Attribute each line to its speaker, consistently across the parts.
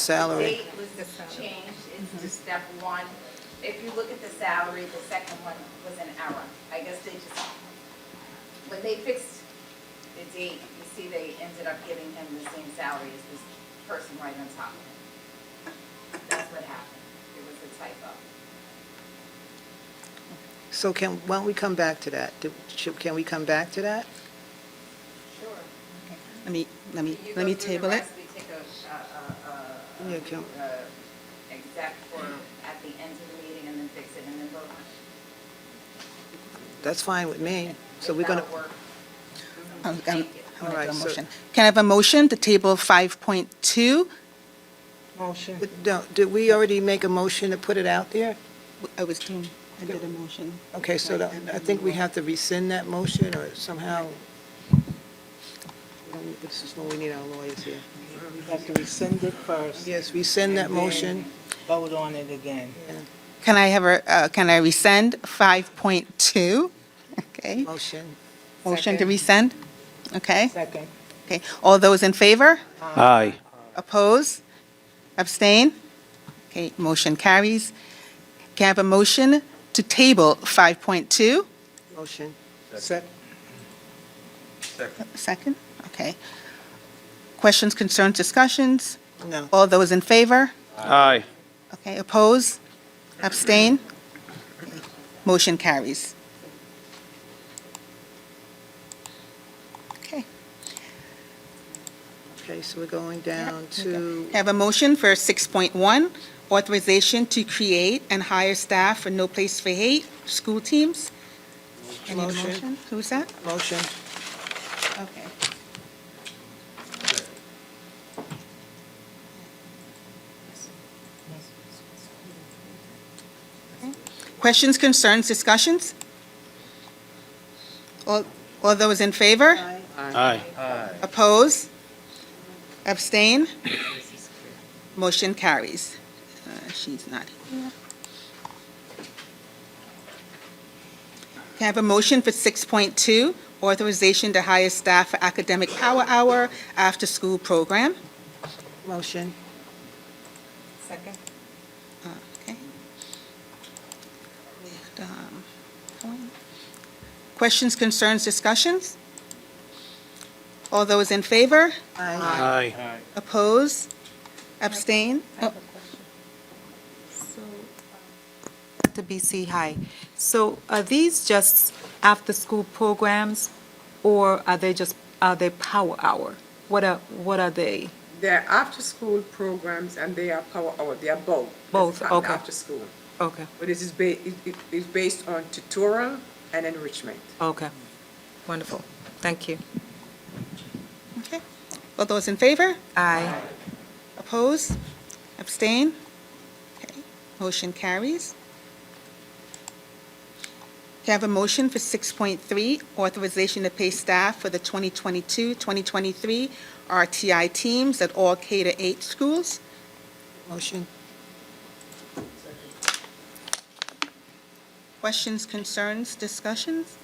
Speaker 1: Salary,
Speaker 2: Date was just changed,
Speaker 3: Mm-hmm.
Speaker 2: it's just step one. If you look at the salary, the second one was an error. I guess they just, when they fixed the date, you see they ended up giving him the same salary as this person right on top of him. That's what happened. It was a typo.
Speaker 1: so can, why don't we come back to that? Do- should- Can we come back to that?
Speaker 2: Sure.
Speaker 3: Let me, let me, let me table it.
Speaker 2: You go through the rest, we
Speaker 1: Yeah,
Speaker 2: take a, uh,
Speaker 1: Kim.
Speaker 2: uh, uh, uh, exec for, at the end of the meeting and then fix it and then vote on it.
Speaker 1: That's fine with me. So we're going to,
Speaker 3: I'm
Speaker 2: Thank
Speaker 3: going
Speaker 2: you.
Speaker 3: to
Speaker 1: Alright,
Speaker 3: do a
Speaker 1: so-
Speaker 3: motion. Can I have a motion to table 5.2?
Speaker 4: Motion.
Speaker 1: no, did we already make a motion to put it out there?
Speaker 3: I was doing, I did a motion.
Speaker 1: Okay, so the- I think we have to rescind that motion or somehow. This is when we need our lawyers here.
Speaker 4: We have to rescind it first.
Speaker 1: Yes, rescind that
Speaker 4: and then
Speaker 1: motion.
Speaker 4: Vote on it again.
Speaker 3: Can I have a, uh, can I rescind 5.2? Okay,
Speaker 1: Motion.
Speaker 3: motion to
Speaker 4: Second.
Speaker 3: rescind? Okay,
Speaker 4: Second.
Speaker 3: okay. All those in favor?
Speaker 5: Aye.
Speaker 3: Oppose? Abstain? Okay, motion carries. Can I have a motion to table 5.2?
Speaker 1: Motion.
Speaker 4: Sec-
Speaker 3: Second? Okay. Questions, concerns, discussions?
Speaker 1: No.
Speaker 3: All those in favor?
Speaker 5: Aye.
Speaker 3: Okay, oppose? Abstain? Motion carries. Okay,
Speaker 1: Okay, so we're going down to,
Speaker 3: have a motion for 6.1, authorization to create and hire staff for No Place for Hate school teams. I need a
Speaker 1: Motion.
Speaker 3: motion. Who's that?
Speaker 1: motion.
Speaker 3: Okay. Questions, concerns, discussions? All all those in favor?
Speaker 5: Aye.
Speaker 3: Oppose? Abstain? Motion carries. Uh, She's not here. Can I have a motion for 6.2, authorization to hire staff for academic power hour after-school program?
Speaker 1: Motion.
Speaker 2: Second.
Speaker 3: Okay. With, um, Helen. Questions, concerns, discussions? All those in favor?
Speaker 1: Aye.
Speaker 5: Aye.
Speaker 3: Oppose? Abstain? Oh,
Speaker 6: So, uh, To BC High. So are these just after-school programs, or are they just, are they power hour? What are, what are they?
Speaker 7: They're after-school programs and they are power hour, they are both. It's
Speaker 6: Both,
Speaker 7: not
Speaker 6: okay.
Speaker 7: After school,
Speaker 6: Okay,
Speaker 7: but it is ba, it, it is based on tutorial and enrichment.
Speaker 6: okay. Wonderful. Thank you.
Speaker 3: Okay. All those in favor?
Speaker 6: Aye.
Speaker 3: Oppose? Abstain? Okay. Motion carries. Can I have a motion for 6.3, authorization to pay staff for the 2022-2023 RTI teams at all K to 8 schools?
Speaker 1: Motion.
Speaker 3: Questions, concerns, discussions?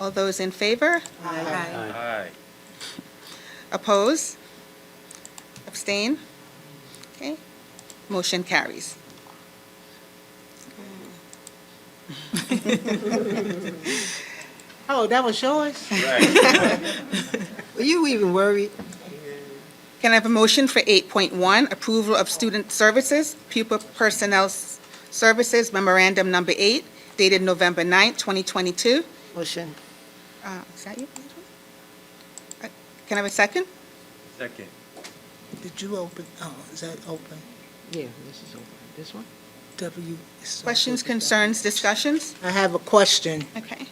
Speaker 3: All those in favor?
Speaker 6: Aye.
Speaker 3: Oppose? Abstain? Okay. Motion carries.
Speaker 4: Oh, that was yours?
Speaker 1: Were you even worried?
Speaker 3: Can I have a motion for 8.1, approval of student services, pupil personnel s- services memorandum number eight dated November 9th, 2022?
Speaker 1: Motion.
Speaker 3: Uh, Is that you? Angela? Uh, Can I have a second?
Speaker 8: Second.
Speaker 4: Did you open, oh, is that open?
Speaker 1: Yeah, this is over. This one?
Speaker 4: W. it's not
Speaker 3: Questions,
Speaker 4: open.
Speaker 3: concerns, discussions?
Speaker 4: I have a question.
Speaker 3: Okay.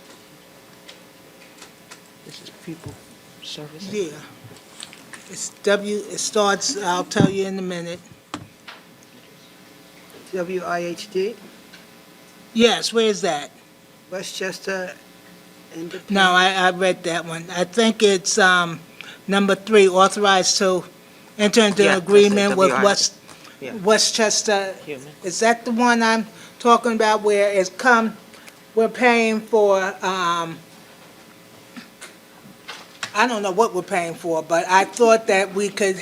Speaker 1: This is people service.
Speaker 4: Yeah. It's W, it starts, I'll tell you in a minute.
Speaker 1: WIHD,
Speaker 4: Yes, where is that?
Speaker 1: Westchester Independent.
Speaker 4: No, I, I read that one. I think it's, um, number three, authorized to enter into
Speaker 1: Yeah,
Speaker 4: an
Speaker 1: that's it,
Speaker 4: agreement with
Speaker 1: WRI.
Speaker 4: West,
Speaker 1: Yeah.
Speaker 4: Westchester.
Speaker 1: Human.
Speaker 4: Is that the one I'm talking about where it's come, we're paying for, um, I don't know what we're paying for, but I thought that we could